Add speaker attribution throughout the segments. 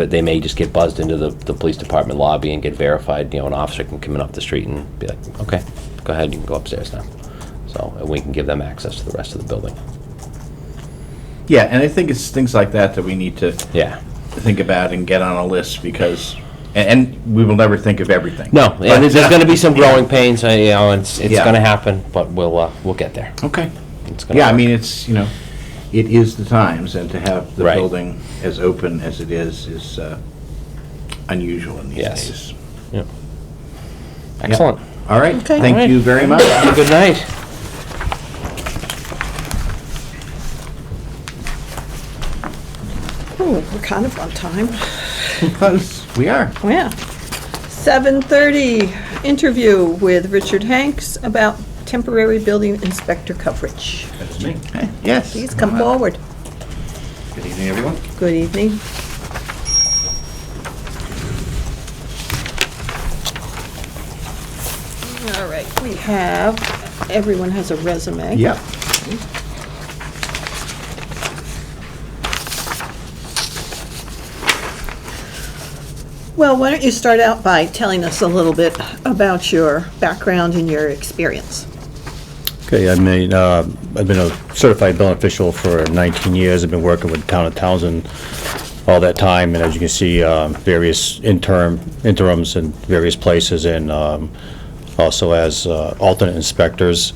Speaker 1: But they may just get buzzed into the, the police department lobby and get verified, you know, an officer can come in off the street and be like, okay, go ahead, you can go upstairs now. So, and we can give them access to the rest of the building.
Speaker 2: Yeah, and I think it's things like that that we need to
Speaker 1: Yeah.
Speaker 2: think about and get on a list because, and, and we will never think of everything.
Speaker 1: No, yeah,
Speaker 2: But-
Speaker 1: there's, there's gonna be some growing pains, uh, you know, it's, it's
Speaker 2: Yeah.
Speaker 1: gonna happen, but we'll, uh, we'll get there.
Speaker 2: Okay.
Speaker 1: It's gonna
Speaker 2: Yeah, I
Speaker 1: work.
Speaker 2: mean, it's, you know, it is the times, and to have the
Speaker 1: Right.
Speaker 2: building as open as it is is uh, unusual in these
Speaker 1: Yes.
Speaker 2: days.
Speaker 1: Excellent.
Speaker 2: All right,
Speaker 3: Okay.
Speaker 1: All right.
Speaker 2: thank you very much.
Speaker 1: Have a Good night.
Speaker 3: Ooh, Oh, we're kind of on time. Oh,
Speaker 2: Close, we are.
Speaker 3: Yeah. 7:30, interview with Richard Hanks about temporary building inspector coverage.
Speaker 4: That's me.
Speaker 2: Okay, Yes. Uh-huh.
Speaker 3: Please come forward.
Speaker 4: Good evening, everyone.
Speaker 3: Good evening. All right, we have, everyone has a resume.
Speaker 2: Yep.
Speaker 3: Well, why don't you start out by telling us a little bit about your background and your experience?
Speaker 5: Okay, I mean, uh, I've been a certified building official for 19 years. I've been working with the town of Townsend all that time, and as you can see, uh, various interim, interims in various places, and um, also as uh, alternate inspectors.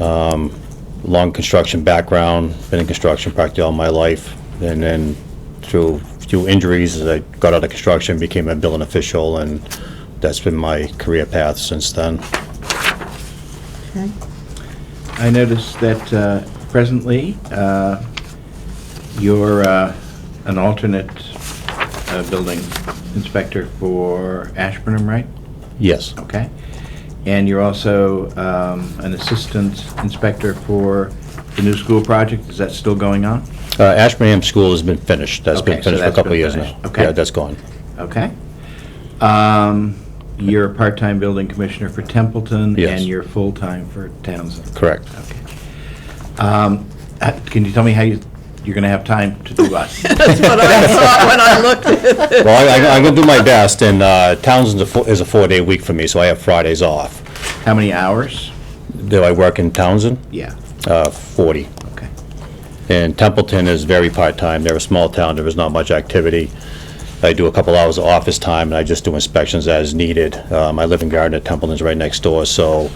Speaker 5: Um, Long construction background, been in construction practically all my life, and then through a few injuries, as I got out of construction, became a building official, and that's been my career path since then.
Speaker 3: Okay.
Speaker 2: I noticed that uh, presently, uh, you're uh, an alternate uh, building inspector for Ashburnham, right?
Speaker 5: Yes.
Speaker 2: Okay. And you're also um, an assistant inspector for the new school project. Is that still going on?
Speaker 5: Uh, Ashburnham School has been finished. That's
Speaker 2: Okay,
Speaker 5: been
Speaker 2: so
Speaker 5: finished for a
Speaker 2: that's
Speaker 5: couple
Speaker 2: been
Speaker 5: of years
Speaker 2: finished.
Speaker 5: now.
Speaker 2: Okay.
Speaker 5: Yeah, that's gone.
Speaker 2: Okay. Um, You're a part-time building commissioner for Templeton.
Speaker 5: Yes.
Speaker 2: And you're full-time for Townsend.
Speaker 5: Correct.
Speaker 2: Okay. Um, uh, Can you tell me how you, you're going to have time to do us?
Speaker 3: That's what I thought when I looked at it.
Speaker 5: Well, I- I- I'm going to do my best, and uh, Townsend is a four- is a four-day week for me, so I have Fridays off.
Speaker 2: How many hours?
Speaker 5: Do I work in Townsend?
Speaker 2: Yeah,
Speaker 5: Uh, 40.
Speaker 2: okay.
Speaker 5: And Templeton is very part-time. They're a small town. There is not much activity. I do a couple hours of office time, and I just do inspections as needed. Um, I live in Gardner. Templeton's right next door, so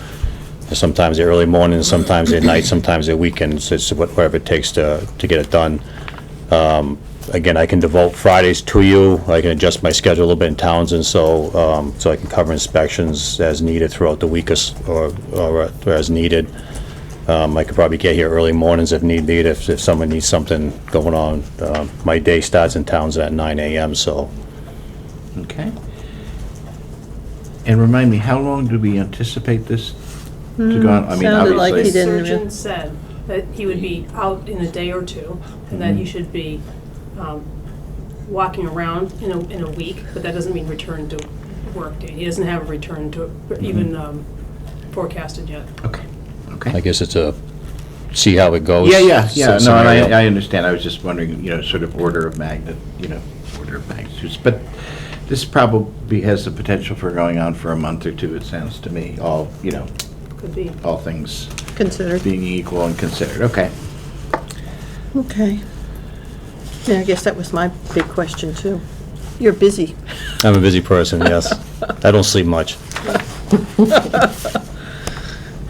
Speaker 5: sometimes they're early mornings, sometimes at night, sometimes at weekends. It's what- whatever it takes to, to get it done. Um, Again, I can devote Fridays to you. I can adjust my schedule a little bit in Townsend, so, um, so I can cover inspections as needed throughout the week or s- or, or uh, as needed. Um, I could probably get here early mornings if need be, if, if someone needs something going on. Um, My day starts in towns at nine AM, so
Speaker 2: Okay. And remind me, how long do we anticipate this to go on? I mean,
Speaker 3: sounded like
Speaker 2: obviously-
Speaker 3: he did. didn't
Speaker 6: The
Speaker 3: really-
Speaker 6: surgeon said that he would be out in a day or two,
Speaker 3: Mm-hmm.
Speaker 6: and that you should be um, walking around in a, in a week, but that doesn't mean return to work day. He doesn't have a return to, even
Speaker 3: Mm-hmm.
Speaker 6: um, forecasted yet.
Speaker 2: Okay, okay.
Speaker 5: I guess it's a, see how it goes.
Speaker 2: Yeah, yeah, yeah,
Speaker 5: s-
Speaker 2: no, and
Speaker 5: oh, scenario.
Speaker 2: I, I understand, I was just wondering, you know, sort of order of magnet, you know, order of magnitudes, but this probably has the potential for going on for a month or two, it sounds to me, all, you know,
Speaker 6: Could be.
Speaker 2: all things
Speaker 3: Considered.
Speaker 2: being equal and considered, okay.
Speaker 3: Okay. Yeah, I guess that was my big question, too. You're busy.
Speaker 5: I'm a busy person, yes. I don't sleep much.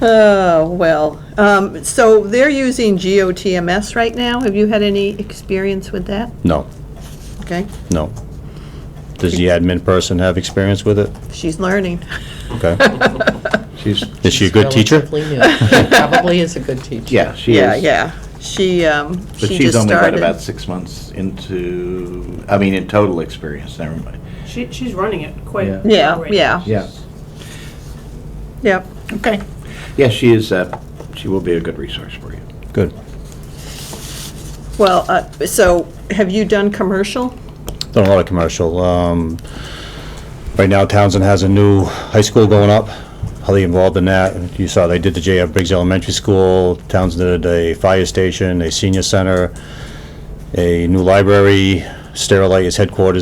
Speaker 3: Oh, well, um, so they're using GOTMS right now. Have you had any experience with that?
Speaker 5: No,
Speaker 3: Okay,
Speaker 5: no. Does the admin person have experience with it?
Speaker 3: she's learning.
Speaker 5: Okay.
Speaker 2: She's,
Speaker 5: Is she a good teacher?
Speaker 7: Relatively new. She Probably is a good teacher.
Speaker 2: yeah, she is.
Speaker 3: Yeah, yeah. She, um,
Speaker 2: But
Speaker 3: she
Speaker 2: she's
Speaker 3: just
Speaker 2: only got about
Speaker 3: started.
Speaker 2: six months into, I mean, in total experience, never mind.
Speaker 6: She, she's running it quite.
Speaker 2: Yeah.
Speaker 3: Yeah,
Speaker 6: great.
Speaker 3: yeah,
Speaker 2: Yeah,
Speaker 3: yep.
Speaker 2: okay. Yeah, she is, uh, she will be a good resource for you.
Speaker 5: Good.
Speaker 3: Well, uh, so have you done commercial?
Speaker 5: Done a lot of commercial. Um, Right now Townsend has a new high school going up, highly involved in that. You saw they did the JF Briggs Elementary School, Townsend did a fire station, a senior center, a new library, Sterilite is headquarters